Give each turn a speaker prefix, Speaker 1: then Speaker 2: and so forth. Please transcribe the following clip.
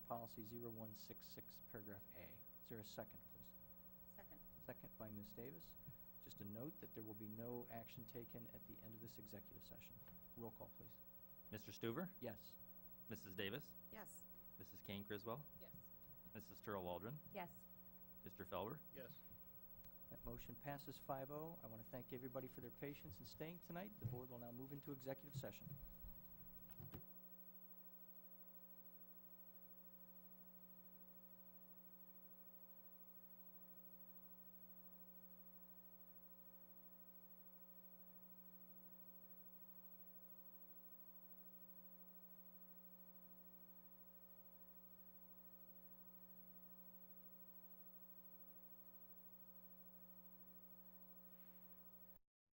Speaker 1: policy 0166, paragraph A. Is there a second, please?
Speaker 2: Second.
Speaker 1: Second by Ms. Davis. Just a note that there will be no action taken at the end of this executive session. Roll call, please.
Speaker 3: Mr. Stuver,
Speaker 1: Yes.
Speaker 3: Mrs. Davis,
Speaker 2: Yes.
Speaker 3: Mrs. Kane Criswell,
Speaker 2: Yes.
Speaker 3: Mrs. Turl Waldron,
Speaker 2: Yes.
Speaker 3: Mr. Felber.
Speaker 4: Yes.
Speaker 1: That motion oh. passes 5-0. I want to thank everybody for their patience and staying tonight. The board will now move into executive session.